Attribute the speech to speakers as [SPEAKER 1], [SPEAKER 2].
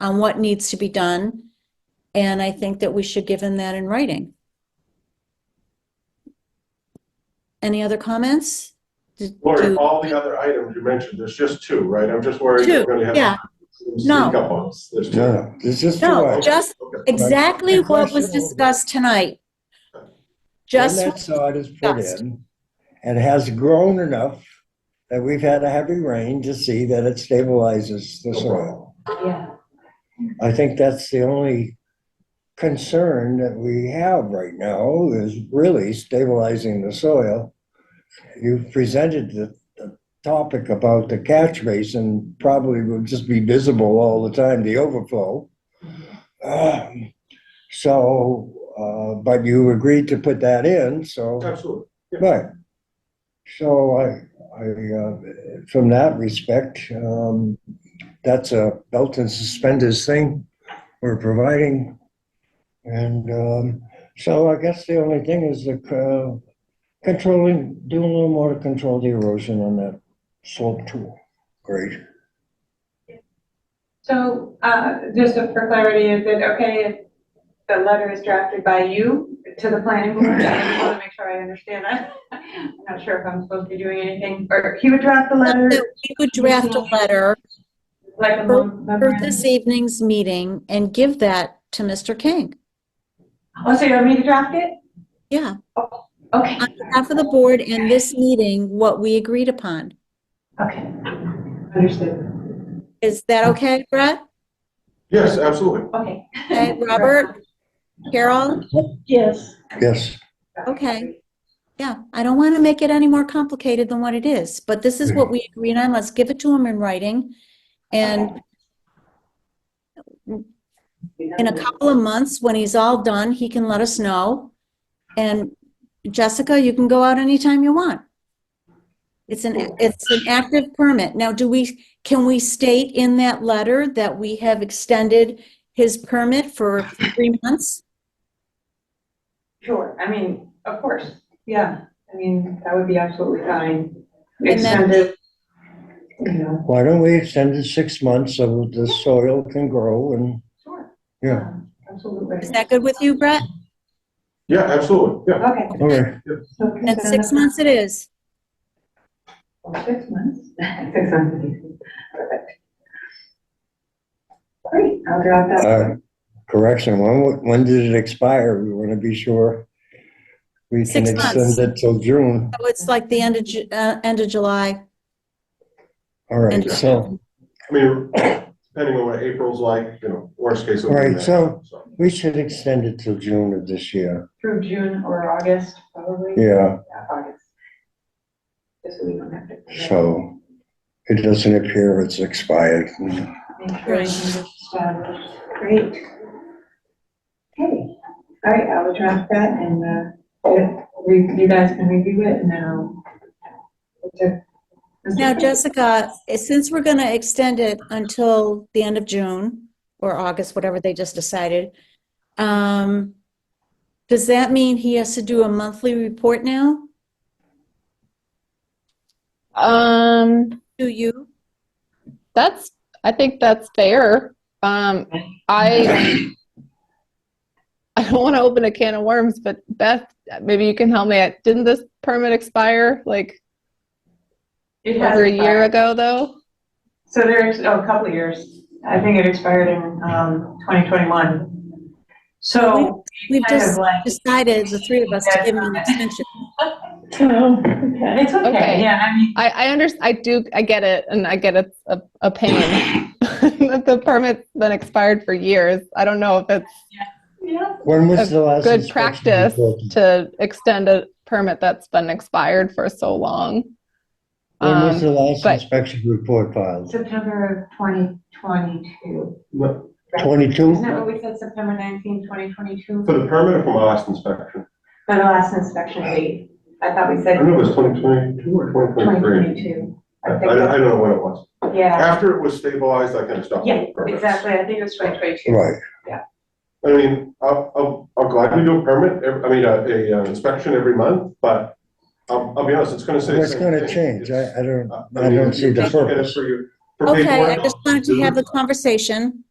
[SPEAKER 1] on what needs to be done. And I think that we should give him that in writing. Any other comments? Did-
[SPEAKER 2] Lori,
[SPEAKER 1] do-
[SPEAKER 2] all the other items you mentioned, there's just two, right? I'm just worried we're
[SPEAKER 1] Two,
[SPEAKER 2] gonna have.
[SPEAKER 1] yeah.
[SPEAKER 2] some
[SPEAKER 1] No.
[SPEAKER 2] Sneak up on us. There's two.
[SPEAKER 3] No, it's just
[SPEAKER 1] No,
[SPEAKER 3] for.
[SPEAKER 1] ju- just
[SPEAKER 2] Okay.
[SPEAKER 1] Exactly
[SPEAKER 3] The
[SPEAKER 1] what was
[SPEAKER 3] question-
[SPEAKER 1] discussed tonight.
[SPEAKER 3] When
[SPEAKER 1] Just,
[SPEAKER 3] that sod is put
[SPEAKER 1] discussed.
[SPEAKER 3] in, and it has grown enough that we've had a heavy rain to see that it stabilizes the
[SPEAKER 2] No
[SPEAKER 3] soil.
[SPEAKER 4] Yeah.
[SPEAKER 3] I think that's the only concern that we have right now is really stabilizing the soil. You presented the, the topic about the catch basin probably would just be visible all the time, the overflow. Um, So, uh, but you agreed to put that in, so.
[SPEAKER 2] Absolutely.
[SPEAKER 3] Right. So I, I, uh, from that respect, um, that's a belt and suspenders thing we're providing. And, um, so I guess the only thing is the, uh, controlling, doing a little more to control the erosion on that slope too. Great.
[SPEAKER 4] So, uh, just for clarity, is it okay if the letter is drafted by you to the planning board? I just want to make sure I understand. that. I'm not sure if I'm supposed to be doing anything, or he would draft the letter,
[SPEAKER 1] we would draft a letter
[SPEAKER 4] like a
[SPEAKER 1] For-
[SPEAKER 4] mem-
[SPEAKER 1] for
[SPEAKER 4] memorandum.
[SPEAKER 1] this evening's meeting and give that to Mr. King.
[SPEAKER 4] Oh, so you want me to draft it?
[SPEAKER 1] Yeah,
[SPEAKER 4] Okay,
[SPEAKER 1] on behalf of the board and this meeting, what we agreed upon.
[SPEAKER 4] okay. Understood.
[SPEAKER 1] Is that okay, Brett?
[SPEAKER 2] Yes, absolutely.
[SPEAKER 4] Okay.
[SPEAKER 1] Okay, Robert? Carol?
[SPEAKER 4] Yes.
[SPEAKER 3] Yes.
[SPEAKER 1] Okay. Yeah, I don't want to make it any more complicated than what it is, but this is what we agreed on. Let's give it to him in writing. And in a couple of months, when he's all done, he can let us know. And Jessica, you can go out anytime you want. It's an, it's an active permit. Now, do we, can we state in that letter that we have extended his permit for three months?
[SPEAKER 4] Sure, I mean, of course, yeah, I mean, that would be absolutely fine.
[SPEAKER 1] And then-
[SPEAKER 4] Extended, you know,
[SPEAKER 3] Why don't we extend it six months so the soil can grow and,
[SPEAKER 4] sure.
[SPEAKER 3] yeah,
[SPEAKER 4] um, Absolutely.
[SPEAKER 1] Is that good with you, Brett?
[SPEAKER 2] Yeah, absolutely. Yeah.
[SPEAKER 4] Okay.
[SPEAKER 3] all right.
[SPEAKER 4] so
[SPEAKER 1] And
[SPEAKER 4] consent
[SPEAKER 1] six
[SPEAKER 4] of-
[SPEAKER 1] months it is.
[SPEAKER 4] Six months? Six months. Perfect. Great, I'll drop that.
[SPEAKER 3] Uh, Correction, when, wa- when did it expire? We want to be sure. We can
[SPEAKER 1] Six months.
[SPEAKER 3] extend it till June.
[SPEAKER 1] So it's like the end of, Ju- uh, end of July.
[SPEAKER 3] All right,
[SPEAKER 1] And-
[SPEAKER 3] so
[SPEAKER 2] I mean, depending on what April's like, you know, worst case. it'll be
[SPEAKER 3] Right,
[SPEAKER 2] May,
[SPEAKER 3] so- we should extend it till June of this year.
[SPEAKER 4] Through June or August, probably.
[SPEAKER 3] Yeah,
[SPEAKER 4] August. Just so we don't have to.
[SPEAKER 3] so it doesn't appear it's expired.
[SPEAKER 4] Make sure everything is established. Great. Okay, all right, I'll draft that and, uh, if we- you guys can review it and then I'll.
[SPEAKER 1] Now, Jessica, eh, since we're going to extend it until the end of June or August, whatever they just decided, um, does that mean he has to do a monthly report now
[SPEAKER 5] Um,
[SPEAKER 1] to you?
[SPEAKER 5] that's, I think that's fair. Um, I, I don't want to open a can of worms, but Beth, maybe you can help me. Didn't this permit expire like
[SPEAKER 4] It has
[SPEAKER 5] over a year
[SPEAKER 4] expired.
[SPEAKER 5] ago though?
[SPEAKER 4] So there's, oh, a couple of years. I think it expired in, um, twenty twenty-one. So.
[SPEAKER 1] We've
[SPEAKER 4] kind of
[SPEAKER 1] just
[SPEAKER 4] like-
[SPEAKER 1] decided, the three of us, to give him an extension.
[SPEAKER 4] It's okay,
[SPEAKER 5] Okay.
[SPEAKER 4] yeah, I mean,
[SPEAKER 5] I, I under, I do, I get it, and I get it's a, a pain that the permit's been expired for years. I don't know if it's
[SPEAKER 4] yeah,
[SPEAKER 3] When was the last?
[SPEAKER 5] good
[SPEAKER 3] inspection
[SPEAKER 5] practice
[SPEAKER 3] report?
[SPEAKER 5] to extend a permit that's been expired for so long.
[SPEAKER 3] When was
[SPEAKER 5] Um,
[SPEAKER 3] the last
[SPEAKER 5] but-
[SPEAKER 3] inspection report filed?
[SPEAKER 4] September of twenty twenty-two.
[SPEAKER 2] No,
[SPEAKER 4] Isn't
[SPEAKER 3] Twenty-two?
[SPEAKER 4] that what we said, September nineteenth, twenty twenty-two?
[SPEAKER 2] For the permit or for my last inspection?
[SPEAKER 4] For the last inspection date. I thought we
[SPEAKER 2] I
[SPEAKER 4] said
[SPEAKER 2] don't know, it was 2022 or 2023.
[SPEAKER 4] 2022.
[SPEAKER 2] I,
[SPEAKER 4] I
[SPEAKER 2] I don't- I
[SPEAKER 4] think,
[SPEAKER 2] don't know when it was.
[SPEAKER 4] yeah,
[SPEAKER 2] After it was stabilized, I kind of stopped.
[SPEAKER 4] yeah,
[SPEAKER 2] doing permits.
[SPEAKER 4] exactly, I think it was 2022.
[SPEAKER 3] Right,
[SPEAKER 2] I mean, I'll, I'll, I'll gladly do a permit, ev- I mean, a, a uh, inspection every month, but I'll, I'll be honest, it's gonna say. the
[SPEAKER 3] it's
[SPEAKER 2] same
[SPEAKER 3] gonna
[SPEAKER 2] thing.
[SPEAKER 3] change. I, I don't,
[SPEAKER 2] It's-
[SPEAKER 3] I
[SPEAKER 2] mean,
[SPEAKER 3] don't see
[SPEAKER 2] you
[SPEAKER 3] the
[SPEAKER 2] just look at it
[SPEAKER 3] purpose.
[SPEAKER 2] for your- for
[SPEAKER 1] Okay, I
[SPEAKER 2] paperwork.
[SPEAKER 1] just wanted to have the conversation.